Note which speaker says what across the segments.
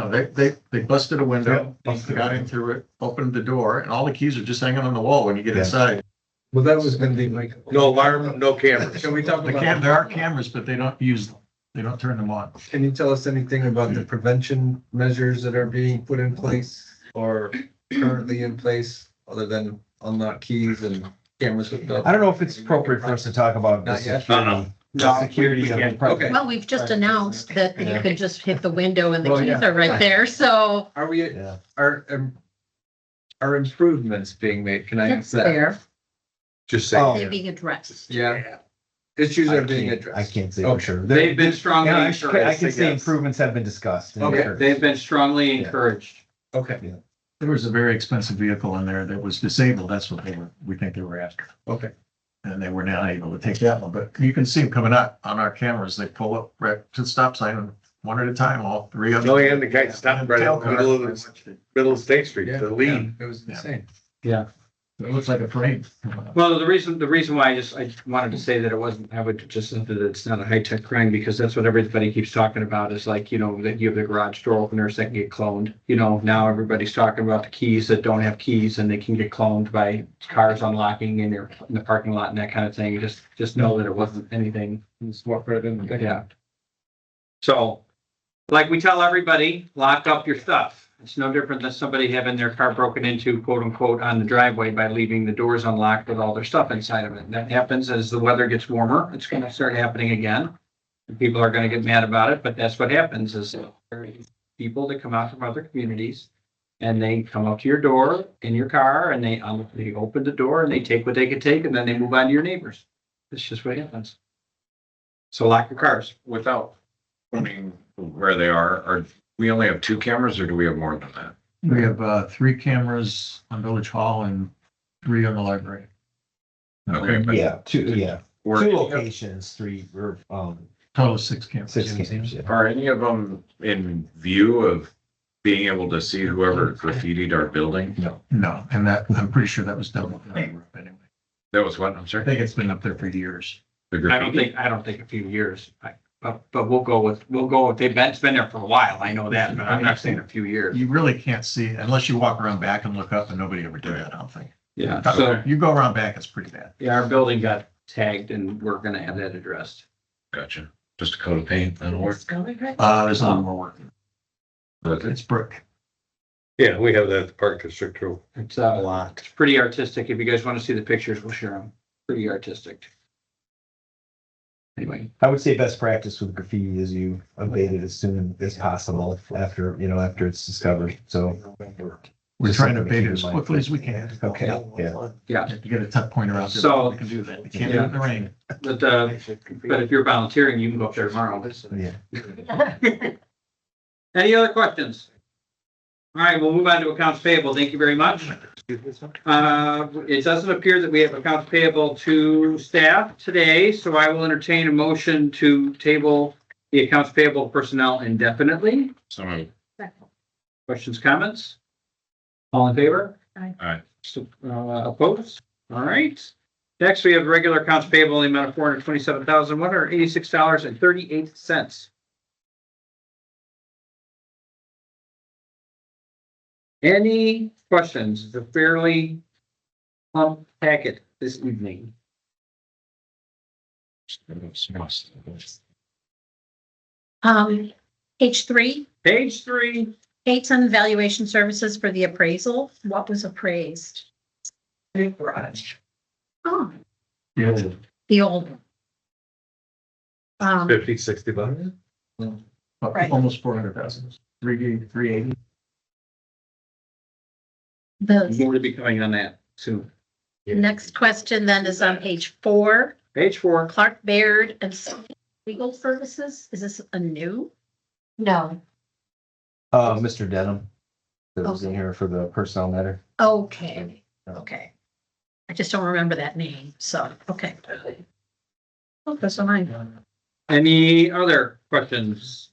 Speaker 1: they, they, they busted a window,
Speaker 2: Yeah, busted
Speaker 1: got
Speaker 2: it.
Speaker 1: in through it, opened the door, and all the keys are just hanging on the wall when you get
Speaker 2: Yeah.
Speaker 1: inside.
Speaker 2: Well, that was gonna be my.
Speaker 3: No alarm, no cameras.
Speaker 2: Can we talk
Speaker 1: The
Speaker 2: about?
Speaker 1: cam, there are cameras, but they don't use them. They don't turn them on.
Speaker 2: Can you tell us anything about the prevention measures that are being put in place or currently in place, other than unlock keys and cameras hooked up?
Speaker 4: I don't know if it's appropriate for us to talk about the
Speaker 2: Not yet.
Speaker 4: security. The security of the
Speaker 2: Okay.
Speaker 4: property.
Speaker 5: Well, we've just announced that you can just hit the window and the
Speaker 2: Well,
Speaker 5: keys
Speaker 2: yeah.
Speaker 5: are right there, so
Speaker 2: Are we,
Speaker 4: Yeah.
Speaker 2: are, um, are improvements being made? Can I
Speaker 5: it's
Speaker 2: ask that?
Speaker 5: there,
Speaker 3: Just say.
Speaker 4: Oh,
Speaker 5: they're being addressed.
Speaker 2: Yeah. Issues
Speaker 4: I
Speaker 2: are being
Speaker 4: can't- I
Speaker 2: addressed.
Speaker 4: can't say
Speaker 2: Okay.
Speaker 4: for sure. There-
Speaker 6: They've been
Speaker 4: you
Speaker 6: strongly
Speaker 4: know, I sh-
Speaker 6: encouraged.
Speaker 4: I can
Speaker 6: I
Speaker 4: say
Speaker 6: guess.
Speaker 4: improvements have been discussed. and
Speaker 2: Okay,
Speaker 4: encouraged.
Speaker 6: They've been strongly
Speaker 4: Yeah.
Speaker 6: encouraged.
Speaker 2: Okay,
Speaker 1: There was a very expensive vehicle in there that was disabled. That's what they were, we think they were after.
Speaker 2: okay.
Speaker 1: And they were now able to take that one, but you can see them coming out on our cameras. They pull up right to the stop sign and one at a time, all three of them.
Speaker 3: No, and the guy stopped right in the middle of the, middle of State Street
Speaker 2: Yeah,
Speaker 3: to leave.
Speaker 2: It was
Speaker 1: Yeah.
Speaker 2: insane.
Speaker 1: It looks like a parade.
Speaker 6: Well, the reason, the reason why I just, I wanted to say that it wasn't, I would just, say that it's not a high-tech crime, because that's what everybody keeps talking about, is like, you know, that you have the garage door openers that can get cloned. You know, now everybody's talking about the keys that don't have keys, and they can get cloned by cars unlocking in their, in the parking lot and that kind of thing. Just, just know that it wasn't anything
Speaker 2: Just walk right in.
Speaker 6: yeah. So, like we tell everybody, lock up your stuff. It's no different than somebody having their car broken into quote unquote on the driveway by leaving the doors unlocked with all their stuff inside of it. And that happens as the weather gets warmer. It's gonna start happening again. And People are gonna get mad about it, but that's what happens is there are people that come out from other communities and they come up to your door in your car and they, un- they open the door and they take what they could take and then they move on to your neighbors. That's just what happens. So lock your cars.
Speaker 7: without owning where they are, are, we only have two cameras or do we have more than that?
Speaker 1: We have, uh, three cameras on Village Hall and three on the library. Uh,
Speaker 7: Okay. but
Speaker 4: Yeah, two, yeah,
Speaker 7: Were,
Speaker 4: two
Speaker 7: any of-
Speaker 4: locations, three, or, um,
Speaker 1: Total of six cameras.
Speaker 4: six games, yeah.
Speaker 7: are any of them in view of being able to see whoever graffitied our building?
Speaker 1: No, and that, I'm pretty sure that was done with another group anyway.
Speaker 7: That was what, I'm
Speaker 1: I
Speaker 7: sorry?
Speaker 1: think it's been up there for years.
Speaker 7: The
Speaker 6: I don't
Speaker 7: graffiti?
Speaker 6: think, I don't think a few years, I- but, but we'll go with, we'll go with, they've been, it's been there for a while, I know that, but I'm not saying a few years.
Speaker 1: You really can't see unless you walk around back and look up and nobody ever did that, I don't think.
Speaker 4: Uh,
Speaker 6: Yeah, so,
Speaker 1: You go around back, it's pretty bad.
Speaker 6: yeah, our building got tagged and we're gonna have that addressed.
Speaker 7: Gotcha. Just a coat of paint, that'll work.
Speaker 1: Uh, there's a lot more work.
Speaker 7: But
Speaker 1: It's brick.
Speaker 3: Yeah, we have that at the Park District too.
Speaker 6: It's, uh,
Speaker 3: lot.
Speaker 6: it's pretty artistic, if you guys wanna see the pictures, we'll share them, pretty artistic. Anyway,
Speaker 4: I would say best practice with graffiti is you abate it as soon as possible after, you know, after it's discovered, so.
Speaker 1: We're
Speaker 4: Just
Speaker 1: trying to
Speaker 4: something to
Speaker 1: abate
Speaker 4: keep
Speaker 1: it as
Speaker 4: in mind.
Speaker 1: quickly as we can.
Speaker 4: Okay, yeah.
Speaker 6: yeah,
Speaker 1: If you get a tuck pointer out there,
Speaker 6: So-
Speaker 1: we can do that. We can't do it in the rain.
Speaker 6: but, uh, but if you're volunteering, you can go up there tomorrow.
Speaker 4: Yeah.
Speaker 6: Any other questions? All right, we'll move on to accounts payable, thank you very much. Uh, it doesn't appear that we have accounts payable to staff today, so I will entertain a motion to table the accounts payable personnel indefinitely.
Speaker 7: Some of,
Speaker 6: Questions, comments? All in favor?
Speaker 5: Aye.
Speaker 7: Aye.
Speaker 6: So, uh, opposed? All right. Next, we have regular accounts payable in the amount of four hundred twenty-seven thousand, one hundred eighty-six dollars and thirty-eight cents. Any questions? It's a fairly plump packet this evening.
Speaker 5: Um, page three,
Speaker 6: Page three,
Speaker 5: dates on valuation services for the appraisal, what was appraised? Oh, the old. one. Um,
Speaker 3: Fifty, sixty bucks.
Speaker 5: Right.
Speaker 1: Almost four hundred thousand. Three, three eighty.
Speaker 5: the
Speaker 6: more to be coming on that soon.
Speaker 5: next question then is on page four,
Speaker 6: Page four.
Speaker 5: Clark Baird and legal services, is this a new? No,
Speaker 4: Uh, Mr. Denham, that was in here for the personnel matter.
Speaker 5: okay, okay. I just don't remember that name, so, okay. Oh, that's on mine.
Speaker 6: Any other questions?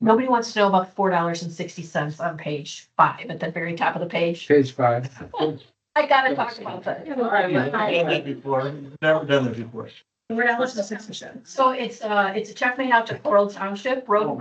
Speaker 8: Nobody wants to know about four dollars and sixty cents on page five, at the very top of the page.
Speaker 6: Page five.
Speaker 8: I gotta talk about that.
Speaker 1: Before, never done it before.
Speaker 5: Four dollars and sixty cents.
Speaker 8: So
Speaker 1: Oh,
Speaker 8: it's, uh, it's a check made out to Coral Township Road